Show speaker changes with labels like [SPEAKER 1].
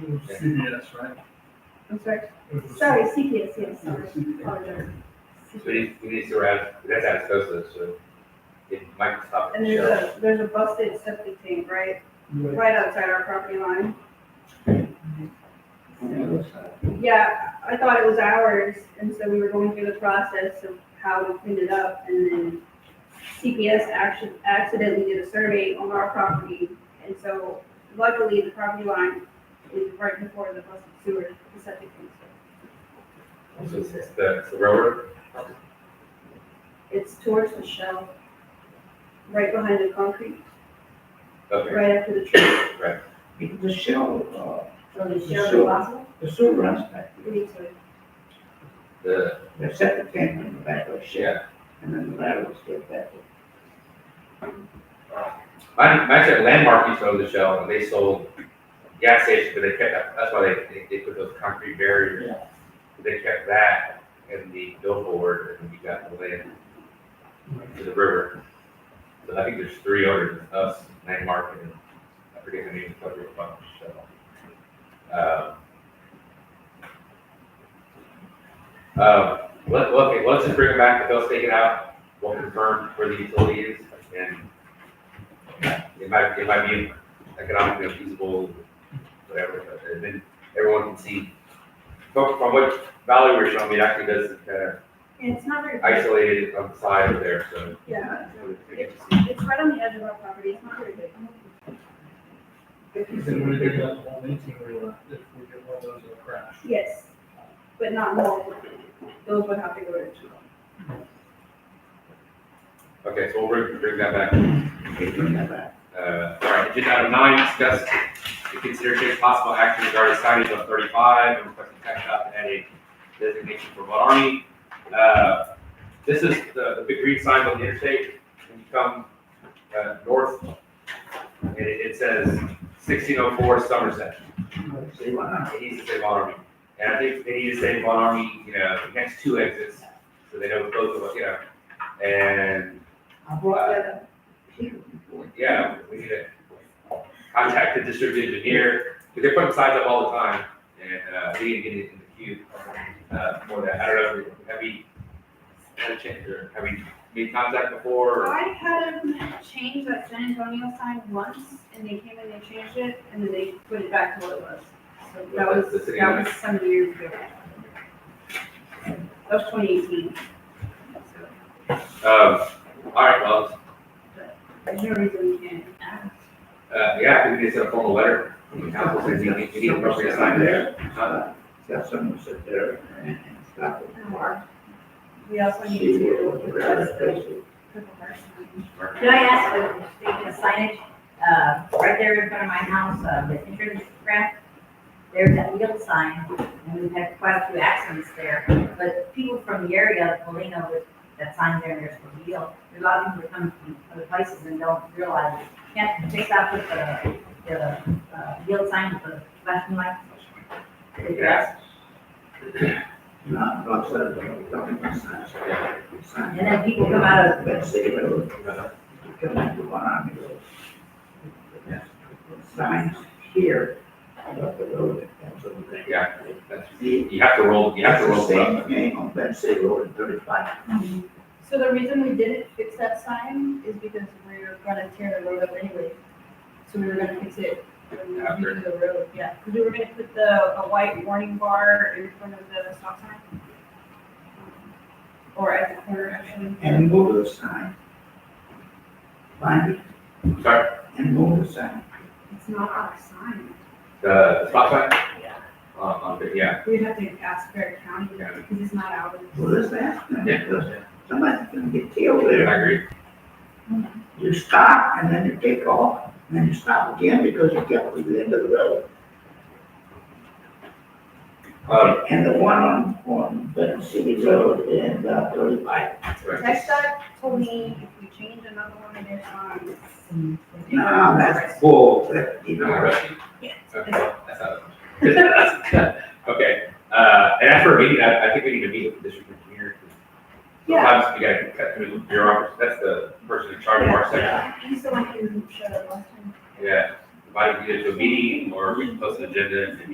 [SPEAKER 1] was CBS, right?
[SPEAKER 2] I'm sorry,
[SPEAKER 1] It was-
[SPEAKER 2] sorry, CPS, yes,
[SPEAKER 1] it was
[SPEAKER 2] sorry.
[SPEAKER 1] CBS.
[SPEAKER 2] Apologize.
[SPEAKER 3] So these, these two are out, that's out of Sosa, so it might stop
[SPEAKER 2] And
[SPEAKER 3] the
[SPEAKER 2] there's
[SPEAKER 3] show.
[SPEAKER 2] a, there's a busted septic tank right,
[SPEAKER 1] You
[SPEAKER 2] right outside our property line.
[SPEAKER 1] went-
[SPEAKER 2] Yeah, I thought it was ours, and so we were going through the process of how we cleaned it up, and then CPS actually accidentally did a survey on our property, and so luckily the property line is right before the busted sewer, the septic tank.
[SPEAKER 3] So it's it's the, it's the railroad,
[SPEAKER 2] It's towards the shell, right behind the concrete,
[SPEAKER 3] okay,
[SPEAKER 2] right after the tree.
[SPEAKER 4] The shell,
[SPEAKER 2] So
[SPEAKER 4] the shell- uh, the sewer runs back,
[SPEAKER 2] We need to,
[SPEAKER 3] the,
[SPEAKER 4] the septic tank in the back of the shed,
[SPEAKER 3] yeah.
[SPEAKER 4] and then the ladder was still back.
[SPEAKER 3] My, my actually landmark used to own the shell, and they sold gas station, but they kept, that- that's why they, they, they put those concrete barriers. They kept that and the billboard, and we got the land to the river. So I think there's three owners, us, landmark, and I forget the name of the other bunch, so. um, Um, let, well, okay, let's just bring it back, if they'll take it out, we'll confirm where the utility is, and it might, it might be economically feasible, whatever, but and then everyone can see. From, from what Valerie was showing me, it actually does kind of
[SPEAKER 2] and it's not very.
[SPEAKER 3] isolate it on the side of there, so.
[SPEAKER 2] Yeah,
[SPEAKER 3] It's
[SPEAKER 2] it's right on the edge of our property, it's not very big.
[SPEAKER 1] You said we did that whole eighteen wheeler, if we get one of those, it'll crash.
[SPEAKER 2] Yes, but not multiple, those would have to go to two.
[SPEAKER 3] Okay, so we'll bring, bring that back.
[SPEAKER 4] They bring that back.
[SPEAKER 3] Uh, all right, agenda item nine, discuss the consideration of possible action regarding signage on thirty-five and requesting tech shop to add a designation for Mud Army. Uh, this is the, the big green sign on the interstate, when you come, uh, north, and it, it says sixteen oh four Somerset.
[SPEAKER 4] See why not?
[SPEAKER 3] It needs to say Von Army, and I think they need to say Von Army, you know, next two exits, so they know both of us, you know, and
[SPEAKER 4] I brought that up here before.
[SPEAKER 3] yeah, we need to contact the district engineer, because they're putting signs up all the time, and, uh, we need to get it in the queue, uh, for that, I don't know, have we had a chance, or have we made contact before, or?
[SPEAKER 2] I had them change that San Antonio sign once, and they came and they changed it, and then they put it back to what it was. So that
[SPEAKER 3] The
[SPEAKER 2] was,
[SPEAKER 3] city
[SPEAKER 2] that
[SPEAKER 3] limits.
[SPEAKER 2] was some years ago. That was twenty eighteen.
[SPEAKER 3] Um, all right, well,
[SPEAKER 2] There's no reason we can't ask.
[SPEAKER 3] uh, yeah, we need to send a formal letter from the council, saying we need, we need an appropriate sign there. Uh,
[SPEAKER 4] Uh, Got someone sit there and and stop it.
[SPEAKER 2] We also need
[SPEAKER 4] See where,
[SPEAKER 2] to
[SPEAKER 4] where
[SPEAKER 2] address
[SPEAKER 4] it
[SPEAKER 2] the
[SPEAKER 4] goes.
[SPEAKER 2] purple heart sign.
[SPEAKER 5] Can I ask, if speaking of signage, uh, right there in front of my house, uh, the entrance ramp, there's that yield sign, and we've had quite a few accidents there, but people from the area, Polino, with that sign there, there's for yield, there's a lot of people that come from other places and don't realize, it. can't fix out with the, the, uh, yield sign with the flashing light.
[SPEAKER 3] Yeah.
[SPEAKER 4] Not, not said, but I'm talking about signs. Signs.
[SPEAKER 5] And then people come out of,
[SPEAKER 4] That city road, come into one army road. Signs here about the road that comes over there.
[SPEAKER 3] Yeah,
[SPEAKER 4] That's
[SPEAKER 3] that's- You have to roll, you have to roll.
[SPEAKER 4] the
[SPEAKER 3] it up.
[SPEAKER 4] same name on that city road in thirty-five.
[SPEAKER 6] So the reason we didn't fix that sign is because we were gonna tear the road up anyway. So we were gonna fix it when we
[SPEAKER 3] After.
[SPEAKER 6] redo the road, yeah, because we were gonna put the, a white warning bar in front of the stop sign. Or at the corner, actually.
[SPEAKER 4] And move the sign. Find it
[SPEAKER 3] Sorry,
[SPEAKER 4] and move the sign.
[SPEAKER 2] It's not our sign.
[SPEAKER 3] the uh, spot sign? Um, on the- yeah,
[SPEAKER 2] We'd have to ask Bear County
[SPEAKER 3] Yeah.
[SPEAKER 2] because it's not ours.
[SPEAKER 4] Well, let's ask them,
[SPEAKER 3] Yeah.
[SPEAKER 4] because somebody's gonna get killed
[SPEAKER 3] I
[SPEAKER 4] there.
[SPEAKER 3] agree,
[SPEAKER 4] You stop and then you take off, and then you stop again because you get to the end of the road.
[SPEAKER 3] um,
[SPEAKER 4] And the one on, on Benton City Road and uh, thirty-five,
[SPEAKER 3] right.
[SPEAKER 2] Next up, told me if we change another one of their signs.
[SPEAKER 4] no, that's full, that, you
[SPEAKER 3] No,
[SPEAKER 4] know,
[SPEAKER 3] right. Okay, that's not a- Okay, uh, and after a meeting, I, I think we need to meet with the district engineer.
[SPEAKER 2] Yeah.
[SPEAKER 3] Sometimes we gotta cut through the bureaucracy, that's the person in charge of our section,
[SPEAKER 2] He's the one who showed up last time.
[SPEAKER 3] yeah. Invite you to a meeting, or we can post an agenda and